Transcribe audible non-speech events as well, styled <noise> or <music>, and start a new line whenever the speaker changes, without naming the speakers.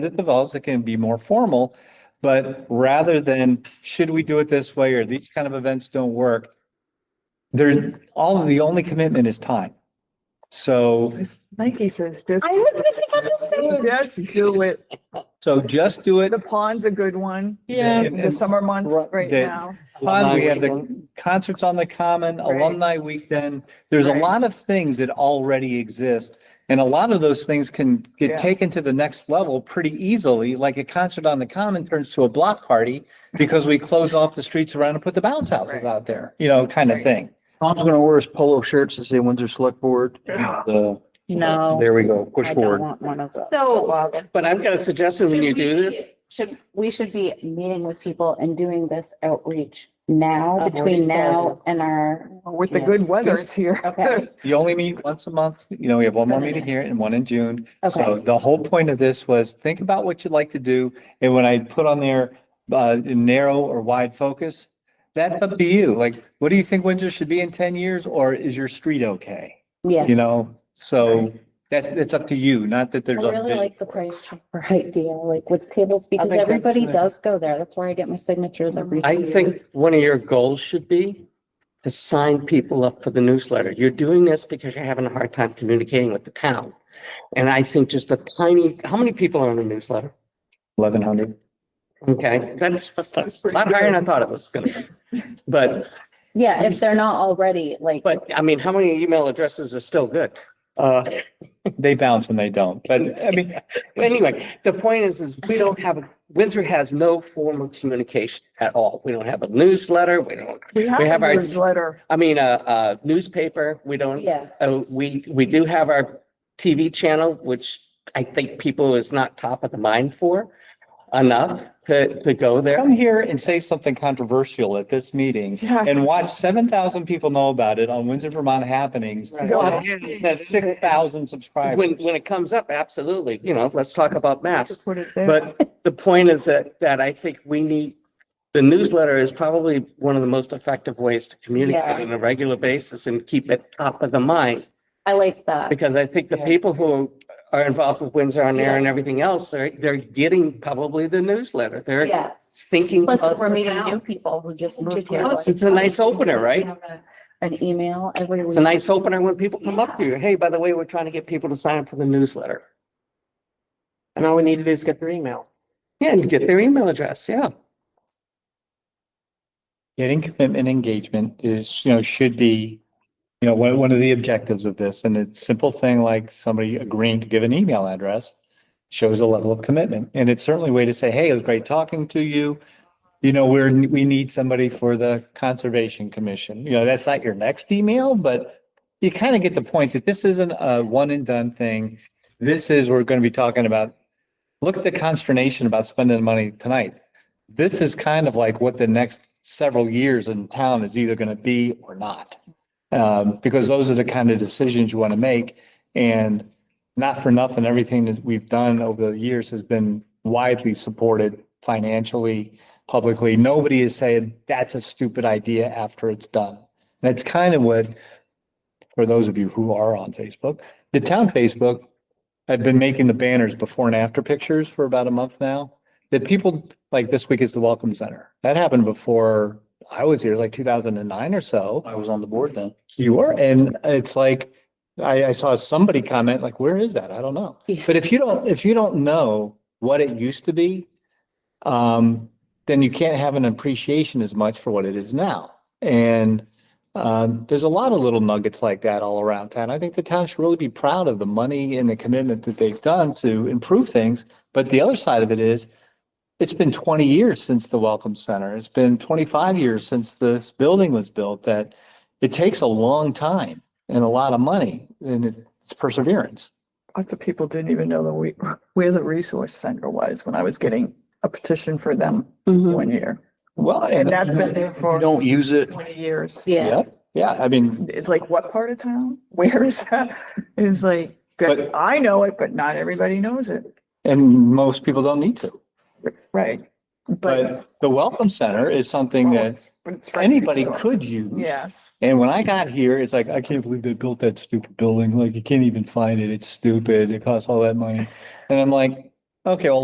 it develops, it can be more formal. But rather than, should we do it this way or these kind of events don't work? There's all, the only commitment is time. So,
Nike says just,
I was just about to say.
just do it.
so just do it.
The pond's a good one.
Yeah.
In the summer months
Right,
right
the-
now.
Pond, we have the concerts on the common,
Right.
alumni weekend. There's a
Right.
lot of things that already exist. And a lot of those things can
Yeah.
get taken to the next level pretty easily, like a concert on the common turns to a block party because we close off the streets around and put the bounce houses
Right.
out there, you know, kind of
Right.
thing.
Tom's gonna wear his polo shirts to say Windsor Select Board. The-
No,
There we go, push
I don't
forward.
want one of those.
So
But I've got a suggestion when you do this.
Should, we should be meeting with people and doing this outreach now,
I've already
between now and our,
With the good
Yes.
weather it's here. <laughs>
okay.
You only meet once a month, you know, we have one more meeting here and one in June. So
Okay.
the whole point of this was think about what you'd like to do. And when I put on there, uh, narrow or wide focus, that's up to you. Like, what do you think Windsor should be in ten years? Or is your street okay?
Yeah.
You know, so that, it's up to you, not that
I
there's. a
really
vision
like the
for it.
price chopper idea, like with tables, because
think that's
everybody
good.
does go there. That's where I get my signatures every.
I
two
think
years.
one of your goals should be to sign people up for the newsletter. You're doing this because you're having a hard time communicating with the town. And I think just a tiny, how many people are on the newsletter?
Eleven hundred.
Okay, that's that's a lot higher than I thought it was gonna be. But,
Yeah, if they're not already, like,
but I mean, how many email addresses are still good? Uh,
They bounce when they don't, but I mean,
Well, Anyway, the point is, is we don't have, Windsor has no form of communication at all. We don't have a newsletter. We don't,
We
We
have
have
a
our-
newsletter.
I mean, a, a newspaper. We don't,
yeah,
uh, we, we do have our TV channel, which I think people is not top of the mind for enough to, to go there.
come here and say something controversial at this
<laughs>
meeting
Yeah.
and watch seven thousand people know about it on Windsor Vermont happenings.
Right.
Well,
It has six thousand subscribers.
When, when it comes up, absolutely, you know, let's talk about masks.
Put it there.
But the point is that, that I think we need, the newsletter is probably one of the most effective ways to
Yeah.
communicate on a regular basis and keep it top of the mind.
I like that.
Because I think the people who are involved with Windsor on Air and everything else, they're, they're getting probably the newsletter. They're
Yes.
thinking.
Plus,
about-
we're meeting new people who just moved here.
Plus, It's a nice opener, right?
An email every week.
It's a nice opener when people come up to you, hey, by the way, we're trying to get people to sign up for the newsletter.
And all we need to do is get their email.
Yeah, and get their email address, yeah.
Getting commitment engagement is, you know, should be, you know, one, one of the objectives of this. And it's simple thing like somebody agreeing to give an email address shows a level of commitment. And it's certainly a way to say, hey, it was great talking to you. You know, we're, we need somebody for the Conservation Commission. You know, that's not your next email, but you kind of get the point that this isn't a one and done thing. This is, we're going to be talking about, look at the consternation about spending the money tonight this is kind of like what the next several years in town is either going to be or not. Um, because those are the kind of decisions you want to make. And not for nothing, everything that we've done over the years has been widely supported financially, publicly. Nobody is saying that's a stupid idea after it's done. That's kind of what, for those of you who are on Facebook, the town Facebook, I've been making the banners before and after pictures for about a month now that people like this week is the welcome center. That happened before I was here, like two thousand and nine or so.
I was on the board then.
You were, and it's like, I, I saw somebody comment like, where is that? I don't know.
Yeah.
But if you don't, if you don't know what it used to be, um, then you can't have an appreciation as much for what it is now. And um, there's a lot of little nuggets like that all around town. I think the town should really be proud of the money and the commitment that they've done to improve things. But the other side of it is, it's been twenty years since the Welcome Center. It's been twenty-five years since this building was built that it takes a long time and a lot of money and it's perseverance.
Lots of people didn't even know that we, where the resource center was when I was getting a petition for them
Mhm.
one year.
Well,
And that's been there
If you
for
don't use it,
twenty years.
Yeah.
yeah, yeah, I mean,
It's like, what part of town? <laughs> Where is that? It's like,
But-
I know it, but not everybody knows it.
and most people don't need to.
Right. But.
But the Welcome Center is
<laughs>
something that anybody could use.
Yes.
And when I got here, it's like, I can't believe they built that stupid building. Like, you can't even find it. It's stupid. It costs all that money. And I'm like, okay, well,